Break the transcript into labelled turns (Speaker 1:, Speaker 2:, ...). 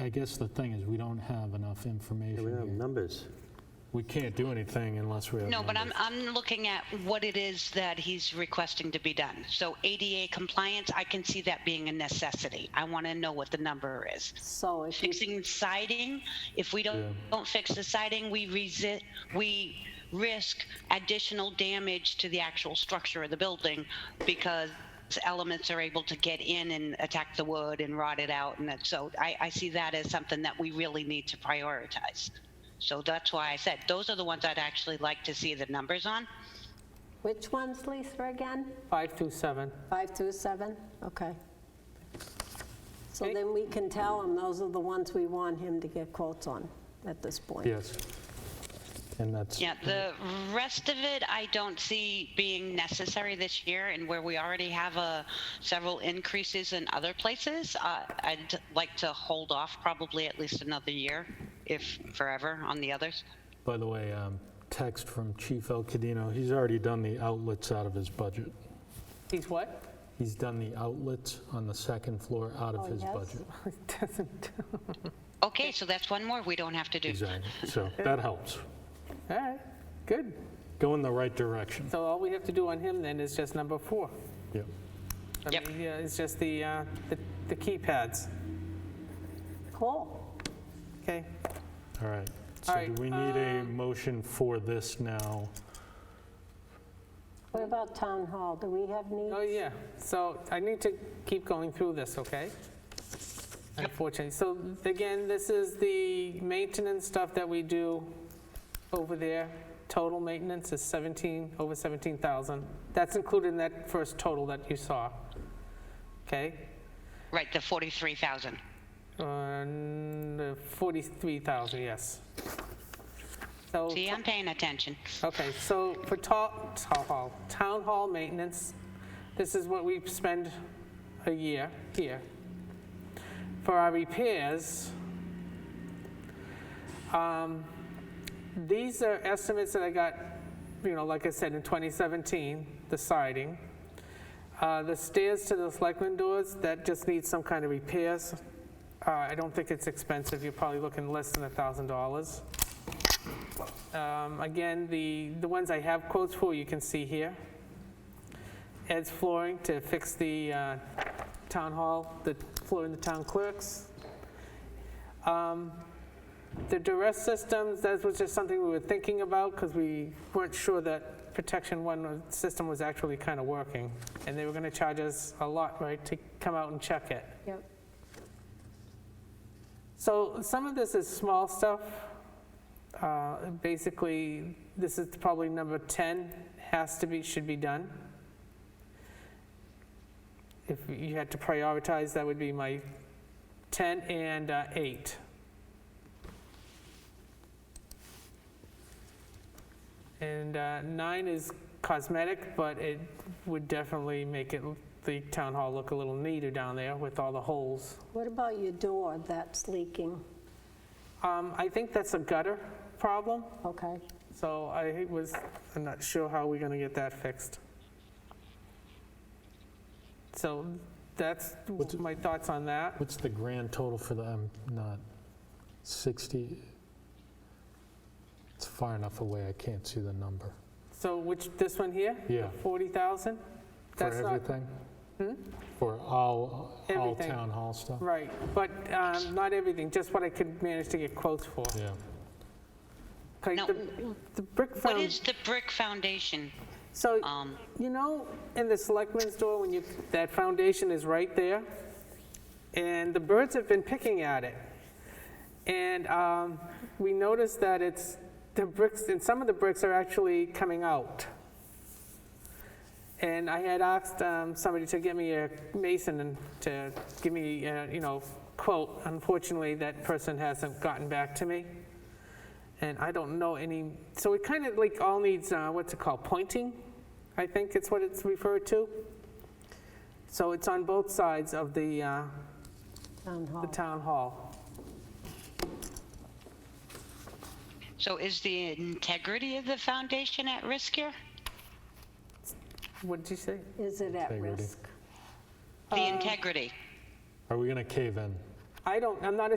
Speaker 1: I guess the thing is, we don't have enough
Speaker 2: Yeah,
Speaker 1: information
Speaker 2: we don't have
Speaker 1: here.
Speaker 2: numbers.
Speaker 1: We can't do anything unless we have.
Speaker 3: No, but I'm,
Speaker 1: numbers.
Speaker 3: I'm looking at what it is that he's requesting to be done. So ADA compliance, I can see that being a necessity. I want to know what the number is.
Speaker 4: So if you,
Speaker 3: Fixing siding, if we don't, don't fix the siding, we resist, we risk additional damage to the actual structure of the building because elements are able to get in and attack the wood and rot it out. And that, so I, I see that as something that we really need to prioritize. So that's why I said, those are the ones I'd actually like to see the numbers on.
Speaker 4: which ones, Lisa, again?
Speaker 5: 527.
Speaker 4: Five through seven? Okay. So then we can tell him those are the ones we want him to get quotes on at this point.
Speaker 1: Yes. And that's,
Speaker 3: Yeah, the rest of it, I don't see being necessary this year, and where we already have uh, several increases in other places, uh, I'd like to hold off probably at least another year, if forever, on the others.
Speaker 1: by the way, um, text from Chief El Cadino, he's already done the outlets out of his budget.
Speaker 5: He's what?
Speaker 1: He's done the outlets on the second floor out
Speaker 5: Oh,
Speaker 1: of his
Speaker 4: yes?
Speaker 1: budget.
Speaker 5: Doesn't,
Speaker 3: Okay, so that's one more we don't have to do.
Speaker 1: Exactly, so that helps.
Speaker 5: all right, good.
Speaker 1: Go in the right direction.
Speaker 5: So all we have to do on him then is just number four.
Speaker 1: Yep.
Speaker 5: I
Speaker 3: Yep.
Speaker 5: mean, Yeah, it's just the, uh, the- the keypads,
Speaker 4: Cool.
Speaker 5: okay?
Speaker 1: All right. So
Speaker 5: All
Speaker 1: do
Speaker 5: right, um,
Speaker 1: we need a motion for this now?
Speaker 4: What about town hall? Do we have
Speaker 5: Oh,
Speaker 4: needs?
Speaker 5: yeah, so I need to keep going through this, okay? Unfortunately, so again, this is the maintenance stuff that we do over there. Total maintenance is 17, over 17,000. That's included in that first total that you saw, okay?
Speaker 3: Right, the 43,000.
Speaker 5: Uh, 43,000, yes. So
Speaker 3: See, I'm paying attention.
Speaker 5: Okay, so for ta- town hall, town hall maintenance, this is what we spend a year here. For our repairs, um, these are estimates that I got, you know, like I said, in 2017, the siding. Uh, The stairs to the selectmen doors, that just needs some kind of repairs. Uh, I don't think it's expensive, you're probably looking less than $1,000. Um, Again, the, the ones I have quotes for, you can see here. Ed's flooring to fix the uh, town hall, the floor in the town clerks. Um, The duress systems, that was just something we were thinking about because we weren't sure that protection one was- system was actually kind of working. And they were going to charge us a lot, right, to come out and check it.
Speaker 4: Yep.
Speaker 5: So some of this is small stuff. Uh, Basically, this is probably number 10, has to be, should be done. If you had to prioritize, that would be my 10 and uh, 8. And uh, 9 is cosmetic, but it would definitely make it, the town hall look a little neater down there with all the holes.
Speaker 4: What about your door that's leaking?
Speaker 5: Um, I think that's a gutter problem,
Speaker 4: Okay.
Speaker 5: so I was, I'm not sure how we're gonna get that fixed. So that's
Speaker 1: What's-
Speaker 5: my thoughts on that.
Speaker 1: What's the grand total for the, I'm not, 60? It's far enough away, I can't see the number.
Speaker 5: So which, this one here,
Speaker 1: Yeah,
Speaker 5: 40,000?
Speaker 1: for
Speaker 5: That's not Hmm?
Speaker 1: everything? For all, all
Speaker 5: Everything.
Speaker 1: town hall stuff?
Speaker 5: Right, but um, not everything, just what I could manage to get quotes for.
Speaker 1: Yeah.
Speaker 5: Like
Speaker 3: Now,
Speaker 5: the- The brick
Speaker 3: What
Speaker 5: found,
Speaker 3: is the brick foundation?
Speaker 5: so,
Speaker 3: Um,
Speaker 5: you know, in the selectmen's door, when you, that foundation is right there, and the birds have been picking at it. And um, we noticed that it's, the bricks, and some of the bricks are actually coming out. And I had asked um, somebody to get me a mason and to give me, uh, you know, quote. Unfortunately, that person hasn't gotten back to me. And I don't know any, so it kind of like all needs, uh, what's it called, pointing? I think it's what it's referred to. So it's on both sides of the, uh,
Speaker 4: Town
Speaker 5: the
Speaker 4: hall.
Speaker 5: town hall.
Speaker 3: so is the integrity of the foundation at risk here?
Speaker 5: What did you say?
Speaker 4: Is it at
Speaker 1: Integrity.
Speaker 4: risk?
Speaker 3: The integrity?
Speaker 1: Are we going to cave in?
Speaker 5: I don't, I'm not a